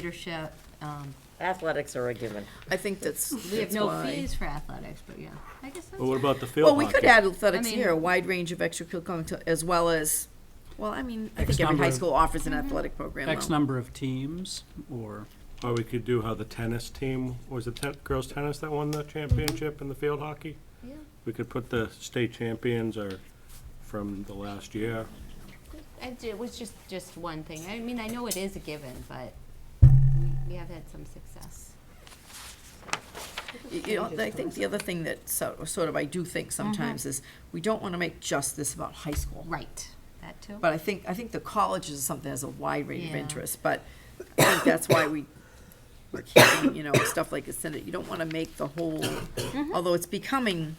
leadership. um, Athletics are a given. I think that's, We have that's no why. fees for athletics, but yeah, I guess that's. Well, what about the field Well, hockey? we could add athletics I here, a mean- wide range of extracurricular, acti- as well as, Mm-hmm. well, I mean, I X think every number high of- school offers an athletic program. X though. number of teams, or, Or we could do how the tennis team, was it ten- girls tennis that won the championship in the field hockey? Yeah. We could put the state champions or from the last year. I ju- It was just, just one thing. I mean, I know it is a given, but we have had some success. You know, I think the other thing that so- sort of I do think sometimes is, we don't want to make just this about high school. Right, that too. But I think, I think the college is something that has a wide range of Yeah. interest, but I think that's why we, we're keeping, you know, stuff like Ascendant, you don't wanna make the whole, although it's becoming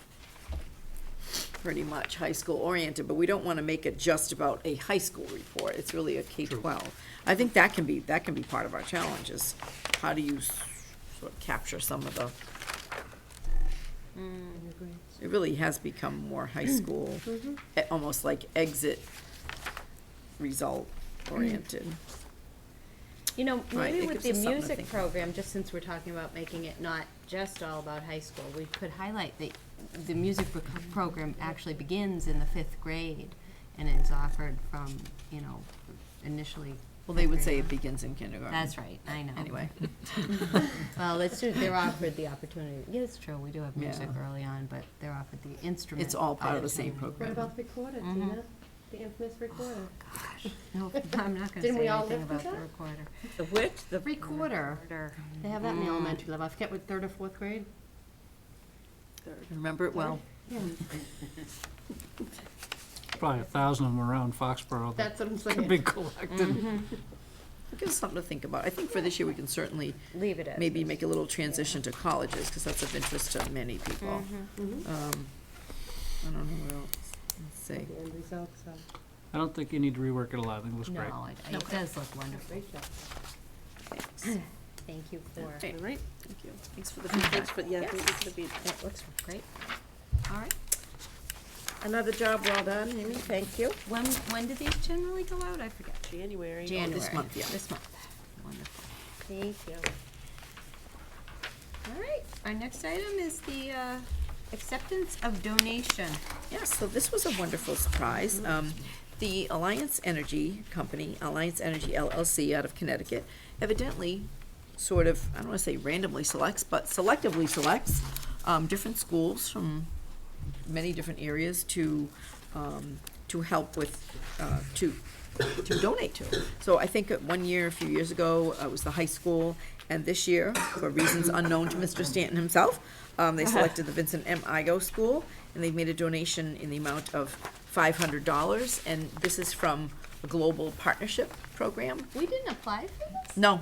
pretty much high school oriented, but we don't wanna make it just about a high school report, it's really a K twelve. I think that can be, that can be part of our challenge is how do you s- sort of capture some of the. It really has become more high school, eh, almost like exit result oriented. You know, Right, maybe it with the gives us something to music think program, just since we're talking about making it not just all about high school, we could highlight that the music pro- program actually begins in the fifth grade and is offered from, you know, initially. Well, they would fifth say grade it on. begins in kindergarten. That's right, I know. Anyway, Well, it's true, they're offered the opportunity, yeah, it's true, we do have music Yeah. early on, but they're offered the instrument. it's all part of the same opportunity. Mm-hmm. Oh, What about the program. recorder, Tina? The infamous recorder? No, I'm not gonna Didn't say we all anything live with about the that? recorder. The which, the, Recorder, Mm. they have that in the elementary level, I forget what, third or fourth grade? Remember it well. probably a thousand of them around Foxborough that That's what I'm could saying. Mm-hmm. be collected. Give us something to think about. I think for this year, we can certainly Leave it as. maybe is. make a little transition to colleges, because that's of interest to many people. Mm-hmm. Um, I don't know what else, let's see. The end results are, I don't think you need to rework it a lot, I think it looks No, great. it- it does look wonderful. great job. Thanks. Thank you for, Okay. it All right, thank you. Thanks for the feedback, but yeah, I think it's gonna be looks great. All right, another job well done, Amy, thank you. when, when do these generally go out? I forget. January. January. month, yeah. Oh, This month. Wonderful. Thank you. All right, our next item is the uh, acceptance of donation. Yeah, so this was a wonderful surprise. Um, The Alliance Energy Company, Alliance Energy LLC out of Connecticut, evidently sort of, I don't want to say randomly selects, but selectively selects um, different schools from many different areas to, um, to help with, uh, to, to donate to. So I think at one year, a few years ago, uh, it was the high school, and this year, for reasons unknown to Mr. Stanton himself, um, they selected the Vincent M. Igo School, and they've made a donation in the amount of five hundred dollars, and this is from a global partnership program We didn't apply for this? no,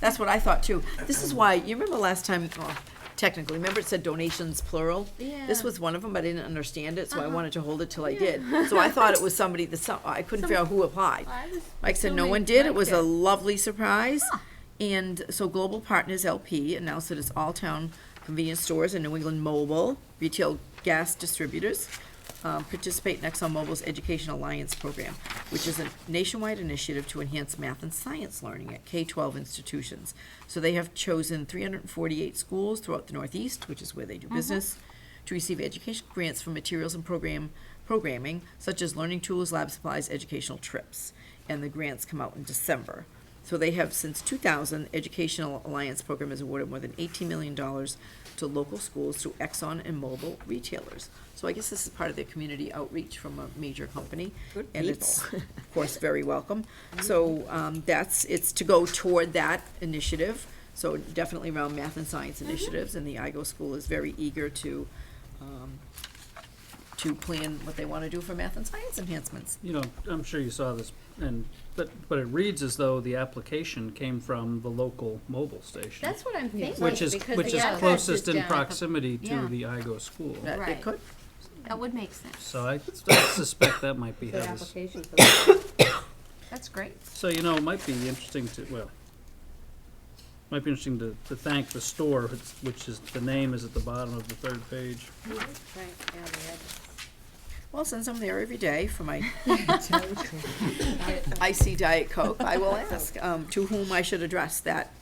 that's what I thought too. This is why, you remember last time, well, technically, remember it said donations plural? Yeah. This was one of them, I didn't understand it, so I Uh-huh. wanted to hold it till I did. So I thought it was somebody, that some- I couldn't figure out who applied. I was Mike said no assuming one did. It was a Mike lovely surprise. Huh. And so Global Partners LP announced that it's all town convenience stores and New England Mobile retail gas distributors um, participate in ExxonMobil's Education Alliance program, which is a nationwide initiative to enhance math and science learning at K-12 institutions. So they have chosen 348 schools throughout the Northeast, which is where they do Mm-hmm. business, to receive education grants for materials and program programming such as learning tools, lab supplies, educational trips, and the grants come out in December. So they have since 2000 Educational Alliance program has awarded more than 18 million dollars to local schools through Exxon and Mobil retailers. So I guess this is part of their community outreach from a major company, and it's of course very welcome. So um, that's it's to go toward that initiative. So definitely around math and science initiatives, and the IGO school is very eager to um, to plan what they want to do for math and science enhancements. You know, I'm sure you saw this, and, but, but it reads as though the application came from the local mobile did. station. That's what I'm thinking. Which is, because which the is address closest in down at the- proximity yeah. to the IGO school. That they Right. could, That would make sense. So I I suspect that might be The how this application for the That's great. So, you know, it might be interesting to, well, might be interesting to, to thank the store, which- which is, the name is at the bottom of the third page. Right, yeah, the address. Well, since I'm there every day for my icy Diet Coke, I will ask um, to whom I should address that